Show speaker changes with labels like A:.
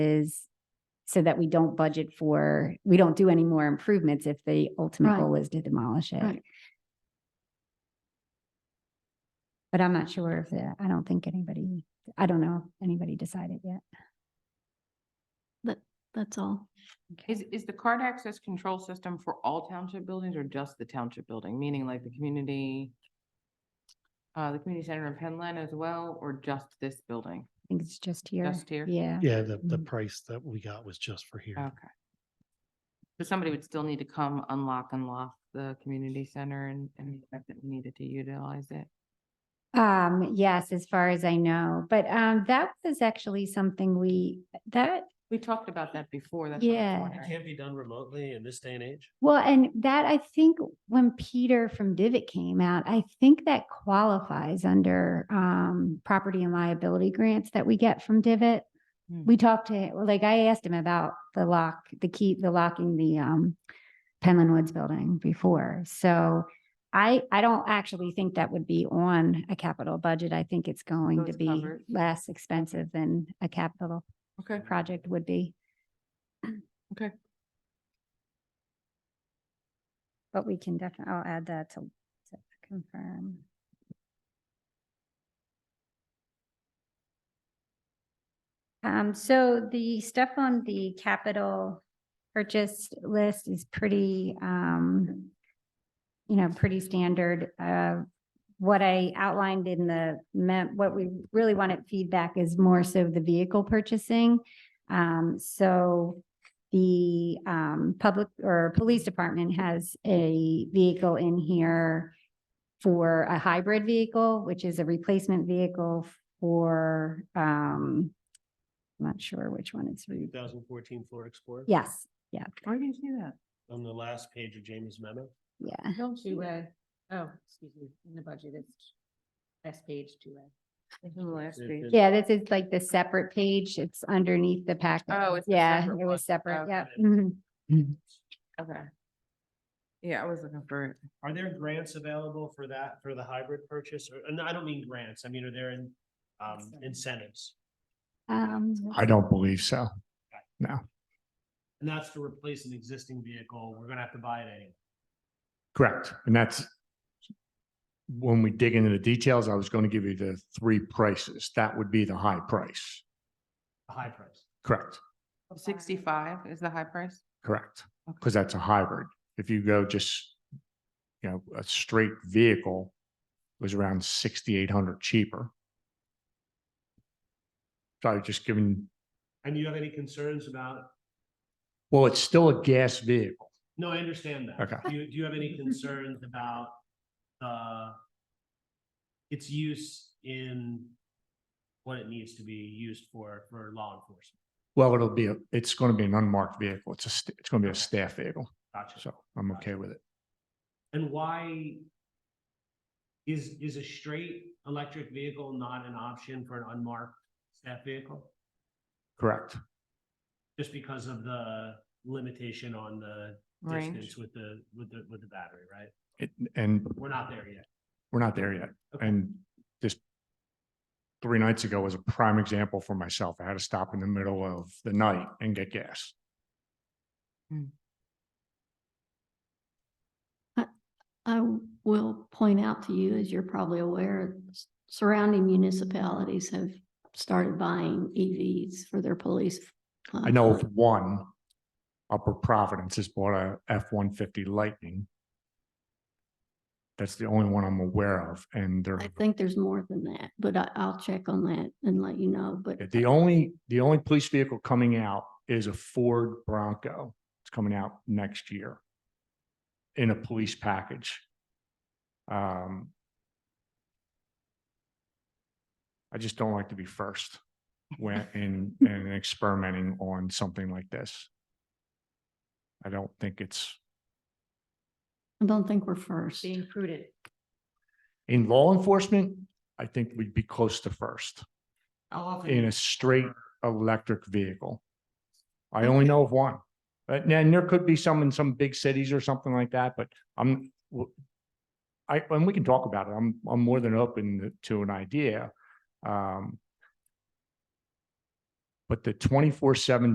A: is so that we don't budget for, we don't do any more improvements if the ultimate
B: Right.
A: goal is to demolish it.
B: Right.
A: But I'm not sure if, the- I don't think anybody, I don't know, if anybody decided yet.
B: That, that's all.
C: Is, is the card access control system for all township buildings or just the township building, meaning like the community? Uh, the community center in Penland as well, or just this building?
A: I think it's just here.
C: Just here?
A: Yeah.
D: Yeah, the, the
A: Mm.
D: price that we got was just for here.
C: Okay. So somebody would still need to come unlock, unlock the community center and, and the fact that we needed to utilize it.
A: Um, yes, as far as I know, but, um, that was actually something we, that,
C: We talked about that before. that's what I was
A: Yeah.
C: wondering.
D: can't be done remotely in this day and age.
A: well, and that I think when Peter from Divot came out, I think that qualifies under, um, property and liability grants that we get from Divot.
C: Hmm.
A: We talked to, him- like, I asked him about the lock, the key, the locking the, um, Penland Woods building before, so I, I don't actually think that would be on a capital budget. I think it's going to
C: it's
A: be
C: covered.
A: less expensive than a capital
C: Okay,
A: project would be.
C: Okay.
A: But we can definitely, I'll add that to, to confirm. Um, so the stuff on the capital purchase list is pretty, um, you know, pretty standard. Uh, what I outlined in the mem, what we really wanted feedback is more so the vehicle purchasing. Um, so the, um, public or police department has a vehicle in here for a hybrid vehicle, which is a replacement vehicle for, um, I'm not sure which one it's. re-
D: Two thousand fourteen Ford Explorer.
A: Yes, yeah,
C: where do you see that?
D: On the last page of Jamie's memo.
A: yeah.
C: Don't see that.
E: Oh, excuse me, in the budget, it's last page, two A.
C: It's on the last
D: It-
C: page.
D: it-
A: Yeah, this is like the separate page. It's underneath the packet.
C: Oh, it's the
A: Yeah,
C: separate
A: it
C: one.
A: was separate, yeah. Mm-hmm.
D: Okay.
C: Okay. Yeah, I was looking for it.
D: Are there grants available for that, for the hybrid purchase? Or, and I don't mean grants, I mean, are there in- um, incentives?
A: Um,
F: I don't believe so.
D: And that's to replace an existing vehicle, we're gonna have to buy it anyway.
F: Correct. And that's when we dig into the details, I was going to give you the three prices. That would be the high price.
D: a high price.
F: Correct,
C: Sixty-five is the high price?
F: correct.
C: Okay.
F: Because that's a hybrid. If you go just, you know, a straight vehicle it was around sixty-eight hundred cheaper. So I was just giving,
D: And you have any concerns about,
F: well, it's still a gas vehicle.
D: no, I understand that.
F: Okay.
D: Do you, do you have any concerns about, uh, its use in what it needs to be used for, for law enforcement?
F: Well, it'll be, a it's going to be an unmarked vehicle. It's a, st- it's going to be a staff vehicle.
D: Gotcha.
F: So I'm okay with it.
D: And why is, is a straight electric vehicle not an option for an unmarked staff vehicle?
F: Correct,
D: Just because of the limitation on the
C: Range.
D: distance with the, with the, with the battery, right?
F: It and
D: We're not there yet.
F: we're not there yet.
D: Okay.
F: And just three nights ago was a prime example for myself. I had to stop in the middle of the night and get gas.
B: I w- will point out to you, as you're probably aware, s- surrounding municipalities have started buying EVs for their police. uh,
F: I know of
B: fleet.
F: one, Upper Providence has bought a F-150 Lightning. That's the only one I'm aware of, and they're
B: I think there's more than that, but I, I'll check on that and let you know, but
F: The only, the only police vehicle coming out is a Ford Bronco. It's coming out next year in a police package. Um, I just don't like to be first when, in, in experimenting on something like this. I don't think it's,
B: I don't think we're first.
E: Being prudent.
F: in law enforcement, I think we'd be close to first
D: How often?
F: in a straight electric vehicle. I only know of one. But now, and there could be some in some big cities or something like that, but I'm, w- I, and we can talk about it. I'm, I'm more than open to an idea. Um, But the twenty-four seven